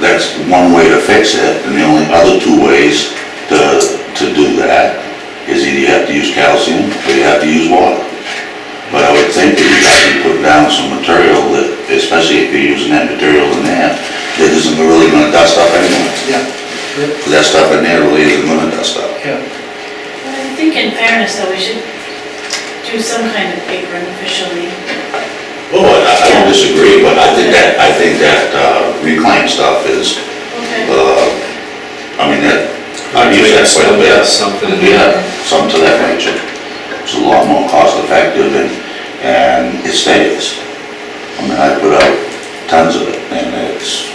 that's one way to fix it, and the only other two ways to, to do that is either you have to use calcium or you have to use water. But I would think that you have to put down some material that, especially if you're using that material in there, that isn't really gonna dust up anyway. Yeah, yeah, 'Cause that stuff in there really isn't gonna dust up. yeah. I think in fairness, though, we should do some kind of apron officially. Well, I I don't disagree, but I think that, I think that uh, reclaimed stuff is, Okay. uh, I mean, that, Uh, I've used that quite a bit. Something. Yeah, something to that nature. It's a lot more cost effective and, and it stays. I mean, I put out tons of it and it's,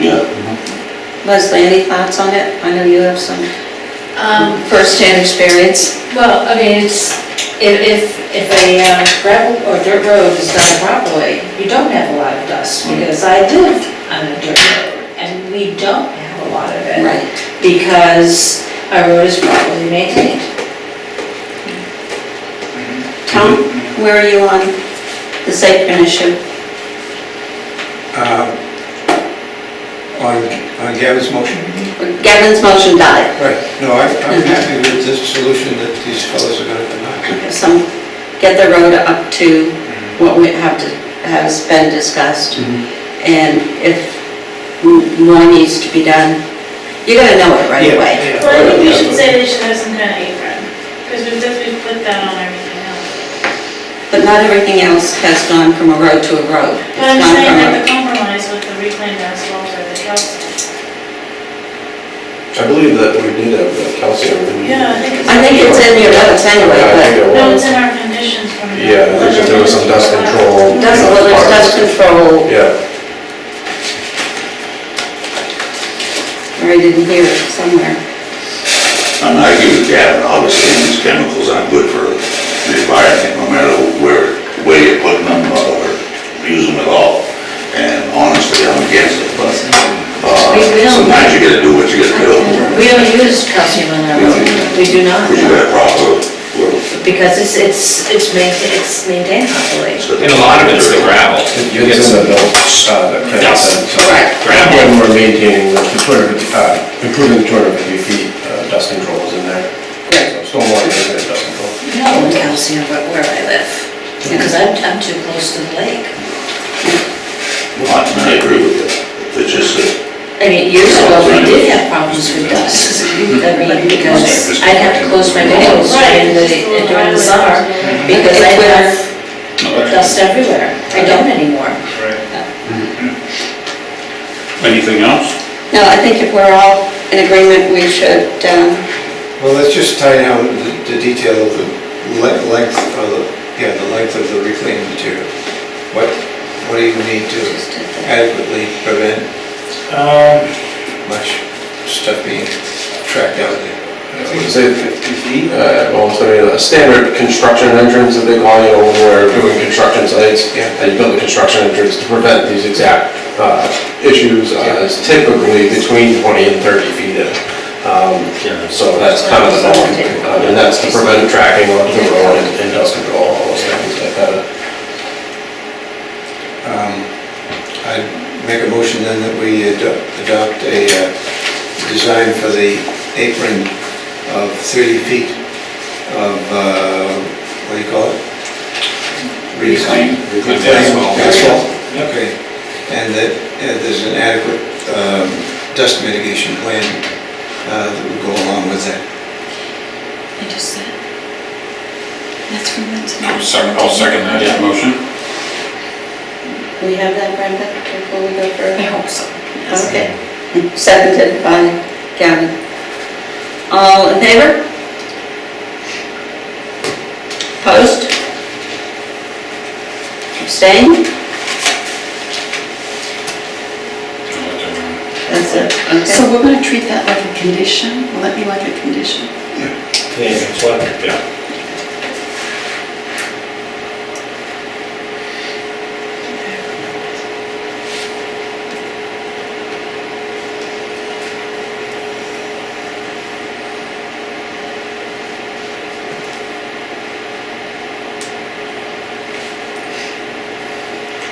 yeah. Leslie, any thoughts on it? I know you have some Um, firsthand experience. well, I mean, it's, if, if, if a uh, gravel or dirt road is done properly, you don't have a lot of dust, because I live on a dirt road, and we don't have a lot of it. Right. Because our road is properly maintained. Tom, where are you on the apron issue? Um, On, on Gavin's motion? Gavin's motion died. Right, no, I- I'm happy with this solution that these fellows are gonna come up with. If Some, get the road up to what we have to, has been discussed. Mm-hmm. And if m- more needs to be done, you're gonna know it right Yeah, away. yeah. Well, I think we should say they should have some kind of apron, because we've definitely put that on everything else. But not everything else has gone from a road to a road. It's But I'm gone saying from that a- the compromise with the reclaimed asphalt or the calcium. I believe that we did have the calcium. Yeah, I think it's. I think it's in your notes anyway, Yeah, I but. think it No, was. it's in our conditions from. the- Yeah, there was- there was some dust control. you know, Dust, well, there's dust control, Yeah, or I didn't hear it I somewhere. mean, I agree with Gavin, obviously, and these chemicals aren't good for the environment, no matter where, where you're putting them or use them at all. And honestly, I'm against it, but, uh, We- we don't- sometimes you gotta do what you gotta do. We don't use calcium in our road, we do not, Because you got a proper, well, because it's, it's, it's maintained, it's maintained properly. it's a- And a lot of it's the gravel. You get it's in the some notes, uh, that Kevin Yes. said, so. Correct. gravel. When we're maintaining the 250, uh, improving the 250 feet, uh, dust control is in there. Right. So Stormwater management, dust control. No calcium, but where I live, because I'm, I'm too close to the lake. Well, I mean, I agree with you. It's just that I mean, years ago, we did have problems with dust, I mean, because I'd have to close my windows during the, during the summer, because I have dust everywhere, I don't anymore. Anything else? No, I think if we're all in agreement, we should, um, Well, let's just tie down the- the detail of the le- length, of the- yeah, the length of the reclaimed material. What, what do you need to adequately prevent Um, much stuff being tracked out there? So if- if, uh, well, so, you know, a standard construction entrance that they call, you know, when we're doing construction sites, Yeah. and you build a construction entrance to prevent these exact uh, issues, uh, is typically between 20 and 30 feet in. Um, So that's kind of the norm, Uh, and that's to prevent tracking onto the road and and dust control, all those things like that. Um, I'd make a motion then that we ado- adopt a uh, design for the apron of 30 feet of, uh, what do you call it? Reclaim. Reclaim asphalt. Asphalt, okay. And that uh, there's an adequate um, dust mitigation plan uh, that would go along with that. I just said. That's from them tonight. I'll second that motion. we have that, Brenda, before we go I further? hope so. Okay. Seconded by Gavin. All in favor? Opposed? Abstained? That's it, So okay. we're gonna treat that like a condition? Will that be like a condition? Yeah.